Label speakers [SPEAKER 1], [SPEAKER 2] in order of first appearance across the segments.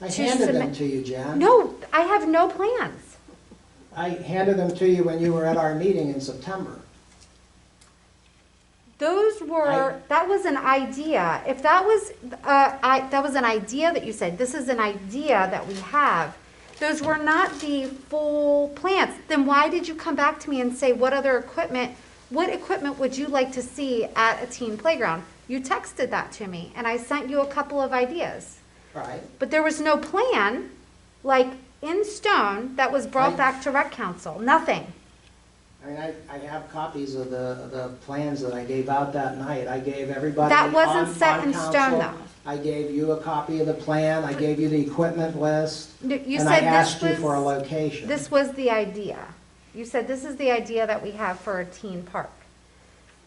[SPEAKER 1] I
[SPEAKER 2] to
[SPEAKER 1] handed them
[SPEAKER 2] submit-
[SPEAKER 1] to you, Jan.
[SPEAKER 2] No, I have no plans.
[SPEAKER 1] I handed them to you when you were at our meeting in September.
[SPEAKER 2] Those were,
[SPEAKER 1] I-
[SPEAKER 2] that was an idea. If that was, uh, I, that was an idea that you said, this is an idea that we have. Those were not the full plans. Then why did you come back to me and say, what other equipment, what equipment would you like to see at a teen playground? You texted that to me and I sent you a couple of ideas.
[SPEAKER 1] Right.
[SPEAKER 2] But there was no plan, like in stone, that was brought
[SPEAKER 1] I-
[SPEAKER 2] back to rec council, nothing.
[SPEAKER 1] I mean, I, I have copies of the, the plans that I gave out that night. I gave everybody.
[SPEAKER 2] That wasn't
[SPEAKER 1] on-
[SPEAKER 2] set
[SPEAKER 1] on
[SPEAKER 2] in stone,
[SPEAKER 1] council.
[SPEAKER 2] though.
[SPEAKER 1] I gave you a copy of the plan. I gave you the equipment list.
[SPEAKER 2] You you
[SPEAKER 1] And I
[SPEAKER 2] said this
[SPEAKER 1] asked you for a
[SPEAKER 2] was,
[SPEAKER 1] location.
[SPEAKER 2] this was the idea. You said this is the idea that we have for a teen park.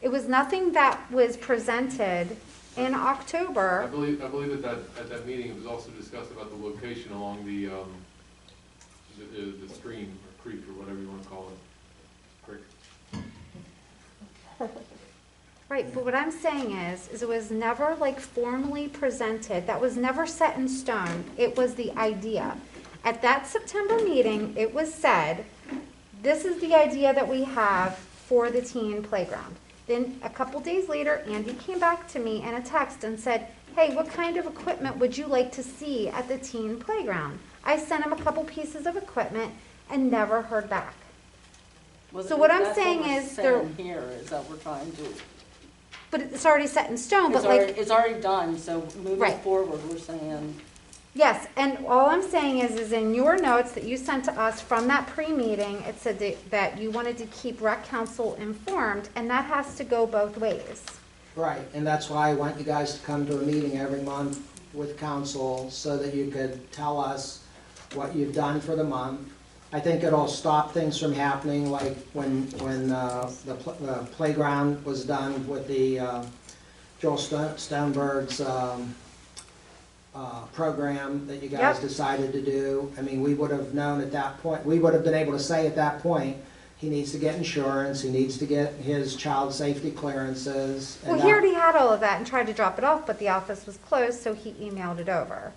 [SPEAKER 2] It was nothing that was presented in
[SPEAKER 3] I
[SPEAKER 2] October.
[SPEAKER 3] believe, I believe at that, at that meeting, it was also discussed about the location along the, um, the, the- the stream, or creek, or whatever you wanna call it, creek.
[SPEAKER 2] Right, but what I'm saying is, is it was never like formally presented, that was never set in stone, it was the idea. At that September meeting, it was said, this is the idea that we have for the teen playground. Then a couple days later, Andy came back to me in a text and said, hey, what kind of equipment would you like to see at the teen playground? I sent him a couple pieces of equipment and never heard back.
[SPEAKER 4] Was
[SPEAKER 2] So
[SPEAKER 4] it-
[SPEAKER 2] what I'm
[SPEAKER 4] that's
[SPEAKER 2] saying
[SPEAKER 4] we're
[SPEAKER 2] is there-
[SPEAKER 4] saying Here is that we're trying to,
[SPEAKER 2] But it's already set in stone, but
[SPEAKER 4] it's
[SPEAKER 2] like.
[SPEAKER 4] already, it's already done, so moving
[SPEAKER 2] Right.
[SPEAKER 4] forward, we're saying,
[SPEAKER 2] Yes, and all I'm saying is, is in your notes that you sent to us from that pre-meeting, it said that- that you wanted to keep rec council informed, and that has to go both ways.
[SPEAKER 1] Right, and that's why I want you guys to come to a meeting every month with council so that you could tell us what you've done for the month. I think it'll stop things from happening like when, when uh, the pl- the playground was done with the uh, Joel Sto- Stoneberg's um, uh, program that you guys
[SPEAKER 2] Yep.
[SPEAKER 1] decided to do. I mean, we would have known at that point, we would have been able to say at that point, he needs to get insurance, he needs to get his child safety clearances. and
[SPEAKER 2] Well, he
[SPEAKER 1] that-
[SPEAKER 2] already had all of that and tried to drop it off, but the office was closed, so he emailed it over.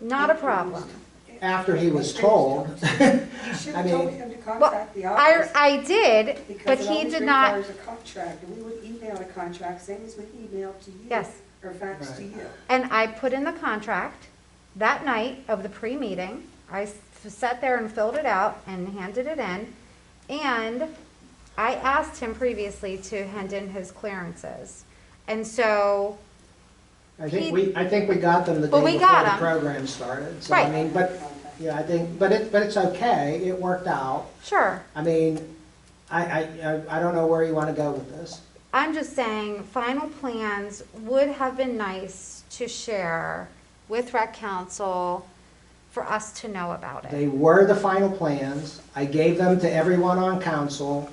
[SPEAKER 2] Not a problem.
[SPEAKER 1] After he was told,
[SPEAKER 5] You should
[SPEAKER 1] I
[SPEAKER 5] have told
[SPEAKER 1] mean-
[SPEAKER 5] him to
[SPEAKER 2] Well,
[SPEAKER 5] contact the
[SPEAKER 2] I,
[SPEAKER 5] office.
[SPEAKER 2] I did, but
[SPEAKER 5] because it
[SPEAKER 2] he
[SPEAKER 5] always
[SPEAKER 2] did not,
[SPEAKER 5] requires a contract, and we would email a contract, same as we emailed to you.
[SPEAKER 2] Yes.
[SPEAKER 5] Or fax to
[SPEAKER 1] Right.
[SPEAKER 5] you.
[SPEAKER 2] and I put in the contract that night of the pre-meeting. I s- sat there and filled it out and handed it in. And I asked him previously to hand in his clearances. And so,
[SPEAKER 1] I think we, I think we got them the day
[SPEAKER 2] But we
[SPEAKER 1] before
[SPEAKER 2] got
[SPEAKER 1] the
[SPEAKER 2] them.
[SPEAKER 1] program started. So I
[SPEAKER 2] Right.
[SPEAKER 1] mean, but, yeah, I think, but it, but it's okay, it worked out.
[SPEAKER 2] sure,
[SPEAKER 1] I mean, I, I, I- I don't know where you want to go with this.
[SPEAKER 2] I'm just saying, final plans would have been nice to share with rec council for us to know about it.
[SPEAKER 1] They were the final plans. I gave them to everyone on council.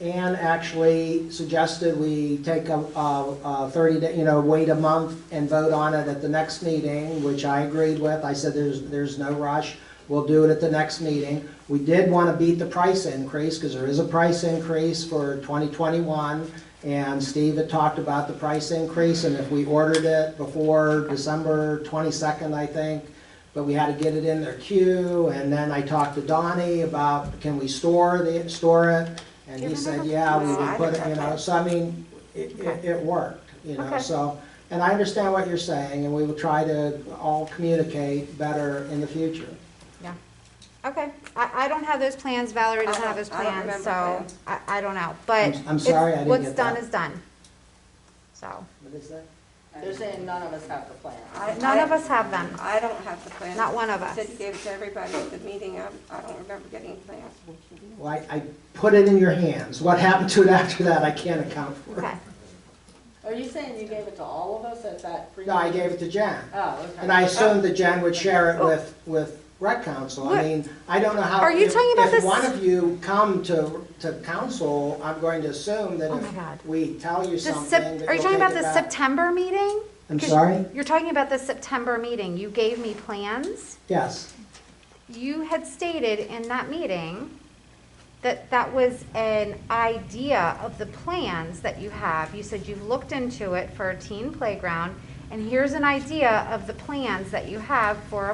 [SPEAKER 1] and actually suggested we take a, a a thirty day, you know, wait a month and vote on it at the next meeting, which I agreed with. I said, there's, there's no rush. We'll do it at the next meeting. We did want to beat the price increase because there is a price increase for twenty twenty-one. And Steve had talked about the price increase and if we ordered it before December twenty-second, I think, but we had to get it in their queue, and then I talked to Donnie about, can we store the, store it? And he said, yeah, we would put it, you know, so I mean, it, it, it worked, you know,
[SPEAKER 2] Okay.
[SPEAKER 1] so. And I understand what you're saying, and we will try to all communicate better in the future.
[SPEAKER 2] Yeah. Okay, I, I don't have those plans, Valerie doesn't
[SPEAKER 4] I
[SPEAKER 2] have
[SPEAKER 4] don't-
[SPEAKER 2] those
[SPEAKER 4] Uh-huh. I don't
[SPEAKER 2] plans,
[SPEAKER 4] remember
[SPEAKER 2] so
[SPEAKER 4] plans.
[SPEAKER 2] I, I don't know, but.
[SPEAKER 1] I'm- I'm sorry I
[SPEAKER 2] it's-
[SPEAKER 1] didn't
[SPEAKER 2] What's
[SPEAKER 1] get
[SPEAKER 2] done
[SPEAKER 1] that.
[SPEAKER 2] is done, so.
[SPEAKER 1] What is that?
[SPEAKER 4] they're saying none of us have the plan.
[SPEAKER 6] I-
[SPEAKER 2] None
[SPEAKER 6] I-
[SPEAKER 2] of us have them,
[SPEAKER 6] I don't have the plans.
[SPEAKER 2] Not one of us.
[SPEAKER 6] Said you gave it to everybody at the meeting. I, I don't remember getting plans.
[SPEAKER 1] Well, I, I put it in your hands. What happened to it after that, I can't account for.
[SPEAKER 2] okay.
[SPEAKER 4] Are you saying you gave it to all of us at that pre?
[SPEAKER 1] No, I gave it to Jan.
[SPEAKER 4] Oh, okay.
[SPEAKER 1] And I assumed that Jen would share it with, with rec council. I
[SPEAKER 2] What-
[SPEAKER 1] mean, I don't know how.
[SPEAKER 2] Are you
[SPEAKER 1] if-
[SPEAKER 2] talking about this-
[SPEAKER 1] If one of you come to, to council, I'm going to assume that
[SPEAKER 2] Oh my God.
[SPEAKER 1] if we tell you
[SPEAKER 2] The
[SPEAKER 1] something,
[SPEAKER 2] Sep-
[SPEAKER 1] that
[SPEAKER 2] are you
[SPEAKER 1] you'll
[SPEAKER 2] talking
[SPEAKER 1] take
[SPEAKER 2] about
[SPEAKER 1] it
[SPEAKER 2] the
[SPEAKER 1] back.
[SPEAKER 2] September meeting?
[SPEAKER 1] I'm
[SPEAKER 2] 'Cause
[SPEAKER 1] sorry?
[SPEAKER 2] You're talking about the September meeting, you gave me plans,
[SPEAKER 1] Yes,
[SPEAKER 2] you had stated in that meeting that that was an idea of the plans that you have, you said you've looked into it for a teen playground, and here's an idea of the plans that you have for a